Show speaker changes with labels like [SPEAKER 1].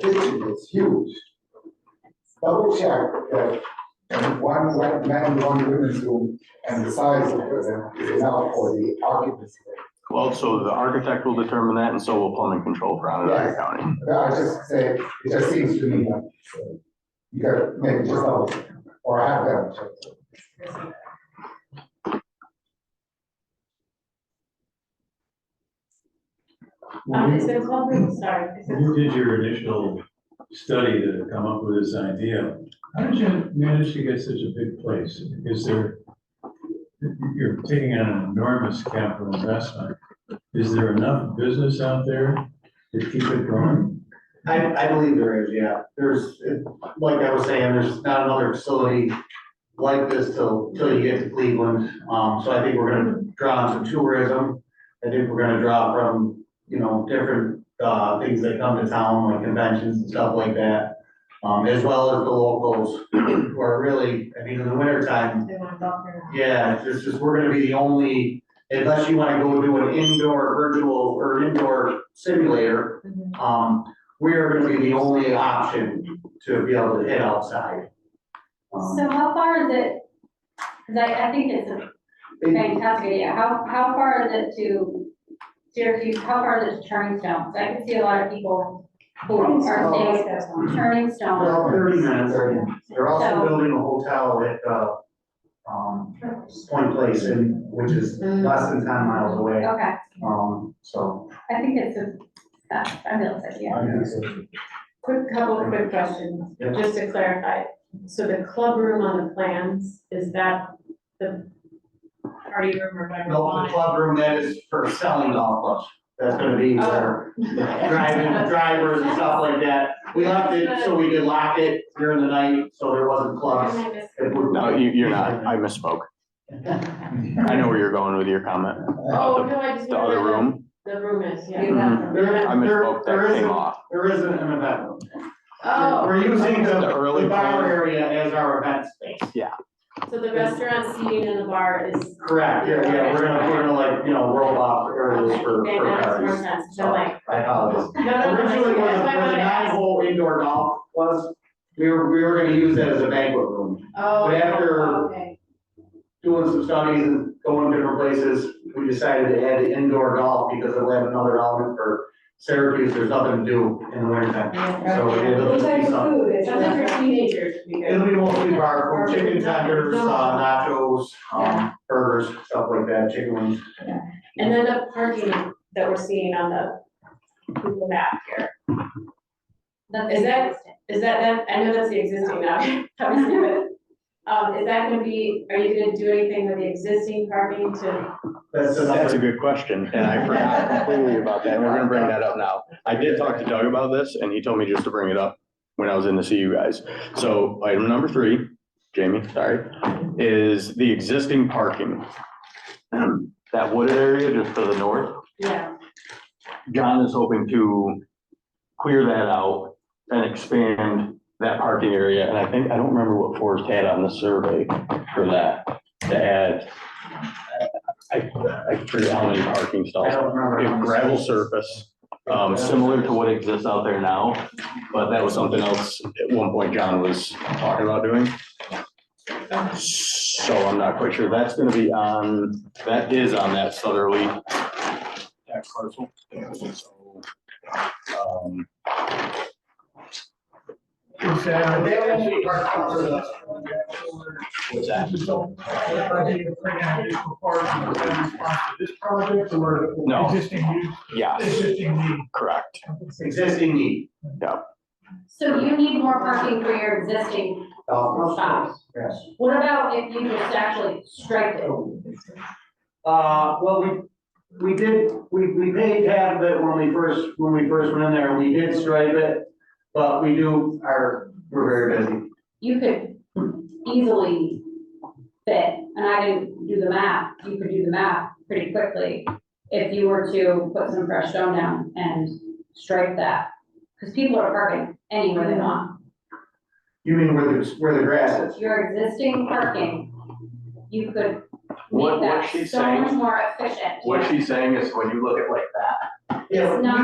[SPEAKER 1] kitchen is huge. Double check that one white man, one women's room, and the size of them is enough for the occupancy.
[SPEAKER 2] Well, so the architect will determine that and so will plumbing control for Onondaga
[SPEAKER 1] Yes.
[SPEAKER 2] County.
[SPEAKER 1] But I just say, it just seems to me that you gotta maybe just double, check, or have them check.
[SPEAKER 3] Um, is there a problem? Sorry. is
[SPEAKER 4] When
[SPEAKER 3] there-
[SPEAKER 4] you did your initial study to come up with this idea, how did you manage to get such a big place? Is there, you're taking on an enormous capital investment. Is there enough business out there to keep it growing?
[SPEAKER 5] I, I believe there is, yeah. There's, it- like I was saying, there's not another facility like this till, till you get to Cleveland. Um, so I think we're gonna draw on some tourism. I think we're gonna draw from, you know, different, uh, things that come to town, like conventions and stuff like that. Um, as well as the locals who are really, I mean, in the winter time,
[SPEAKER 3] They want to talk or not?
[SPEAKER 5] yeah, it's just, we're gonna be the only, unless you wanna go do an indoor virtual or indoor simulator,
[SPEAKER 3] Mhm.
[SPEAKER 5] um, we're gonna be the only option to be able to hit outside. Um,
[SPEAKER 6] So how far is it, because I, I think it's a
[SPEAKER 5] it-
[SPEAKER 6] fantastic idea, how, how far is it to Syracuse, how far is it to Turning Stone? 'Cause I can see a lot of people who are staying
[SPEAKER 3] Yes, that's
[SPEAKER 6] on
[SPEAKER 3] one.
[SPEAKER 6] Turning Stone.
[SPEAKER 5] Well, thirty minutes,
[SPEAKER 6] Yeah.
[SPEAKER 5] they're also
[SPEAKER 6] So-
[SPEAKER 5] building a hotel at, uh, um, Point Place and, which is
[SPEAKER 6] Mm.
[SPEAKER 5] less than ten miles away,
[SPEAKER 6] Okay,
[SPEAKER 5] um, so.
[SPEAKER 6] I think it's a, that, I feel it's, yeah.
[SPEAKER 5] I guess-
[SPEAKER 3] Quick, couple of quick questions,
[SPEAKER 5] Yeah.
[SPEAKER 3] just to clarify. So the club room on the plans, is that the party room or whatever? you
[SPEAKER 5] No, the
[SPEAKER 3] want it?
[SPEAKER 5] club room, that is for selling golf clubs, that's gonna be
[SPEAKER 6] Oh.
[SPEAKER 5] for driving, drivers and stuff like that. We left it so we could lock it during the night, so there wasn't
[SPEAKER 3] Am
[SPEAKER 5] clubs.
[SPEAKER 3] I missing-
[SPEAKER 5] It would-
[SPEAKER 2] No, you, you're not. I misspoke. I know where you're going with your comment.
[SPEAKER 3] Oh, no, I just.
[SPEAKER 2] The other
[SPEAKER 3] wondered
[SPEAKER 2] room,
[SPEAKER 3] where The room is, yeah.
[SPEAKER 6] You got
[SPEAKER 2] Mhm.
[SPEAKER 6] them.
[SPEAKER 5] There-
[SPEAKER 2] I
[SPEAKER 5] there-
[SPEAKER 2] misspoke.
[SPEAKER 5] there
[SPEAKER 2] That
[SPEAKER 5] isn't-
[SPEAKER 2] came off.
[SPEAKER 5] There isn't an event room.
[SPEAKER 3] Oh,
[SPEAKER 5] We're using the,
[SPEAKER 2] The early
[SPEAKER 5] the bar
[SPEAKER 2] part.
[SPEAKER 5] area as our event space.
[SPEAKER 3] so the restaurant seating and the bar is.
[SPEAKER 5] Correct, yeah, yeah, we're gonna, we're gonna like, you know, roll off areas for,
[SPEAKER 3] Okay,
[SPEAKER 5] for
[SPEAKER 3] that makes more
[SPEAKER 5] parties.
[SPEAKER 3] sense, so
[SPEAKER 5] Sorry,
[SPEAKER 3] like.
[SPEAKER 5] I apologize.
[SPEAKER 3] No, no, no,
[SPEAKER 5] Originally, where the,
[SPEAKER 3] that's why I
[SPEAKER 5] where
[SPEAKER 3] wanted
[SPEAKER 5] the
[SPEAKER 3] to ask.
[SPEAKER 5] nine-hole indoor golf was, we were, we were gonna use that as a banquet room.
[SPEAKER 3] Oh,
[SPEAKER 5] But after-
[SPEAKER 3] okay.
[SPEAKER 5] Doing some studies and going different places, we decided to add the indoor golf because it'll have another element for Syracuse, there's nothing to do in the winter time. So it'll just be something.
[SPEAKER 3] It sounds like for teenagers would be
[SPEAKER 5] It'll
[SPEAKER 3] good.
[SPEAKER 5] be mostly bar, chicken tenders, uh, nachos,
[SPEAKER 3] Yeah.
[SPEAKER 5] um, burgers, stuff like that, chicken wings.
[SPEAKER 3] And then the parking that we're seeing on the Google map here,
[SPEAKER 6] That's
[SPEAKER 3] Is that-
[SPEAKER 6] interesting.
[SPEAKER 3] is that, that, I know that's the existing now, obviously, but, um, is that gonna be, are you gonna do anything with the existing parking to?
[SPEAKER 5] That's
[SPEAKER 2] That's a
[SPEAKER 5] another,
[SPEAKER 2] good question, and I forgot completely about that, and we're gonna bring that up now. I did talk to Doug about this, and he told me just to bring it up when I was in to see you guys. So item number three, Jamie, sorry, is the existing parking. That wooded area just to the north,
[SPEAKER 3] Yeah.
[SPEAKER 2] John is hoping to clear that out and expand that parking area, and I think, I don't remember what Forrest had on the survey for that, to add. I, I forget how many parking stalls.
[SPEAKER 5] I don't remember.
[SPEAKER 2] a gravel surface, um, similar to what exists out there now, but that was something else at one point John was talking about doing. So I'm not quite sure. That's gonna be on, that is on that southerly tax parcel. So, um,
[SPEAKER 5] Is that- they actually are covered up.
[SPEAKER 2] What's that?
[SPEAKER 7] This project or
[SPEAKER 2] No.
[SPEAKER 7] existing use,
[SPEAKER 2] Yeah,
[SPEAKER 7] existing need?
[SPEAKER 2] correct.
[SPEAKER 5] Existing need.
[SPEAKER 6] So you need more parking for your existing
[SPEAKER 5] Golf
[SPEAKER 6] shop.
[SPEAKER 5] Yes.
[SPEAKER 6] What about if you just actually striped it?
[SPEAKER 5] Uh, well, we, we did, we, we paid half of it when we first, when we first went in there, we did stripe it. But we do, our, we're very busy.
[SPEAKER 6] you could easily fit, and I didn't do the math, you could do the math pretty quickly if you were to put some fresh stone down and stripe that, because people are parking anywhere they want.
[SPEAKER 5] You mean where the, where the grass is?
[SPEAKER 6] Your existing parking, you could
[SPEAKER 2] What- what
[SPEAKER 6] make that
[SPEAKER 2] she's
[SPEAKER 6] so much
[SPEAKER 2] saying-
[SPEAKER 6] more efficient.
[SPEAKER 2] she's saying is when you look at like that,
[SPEAKER 6] It's not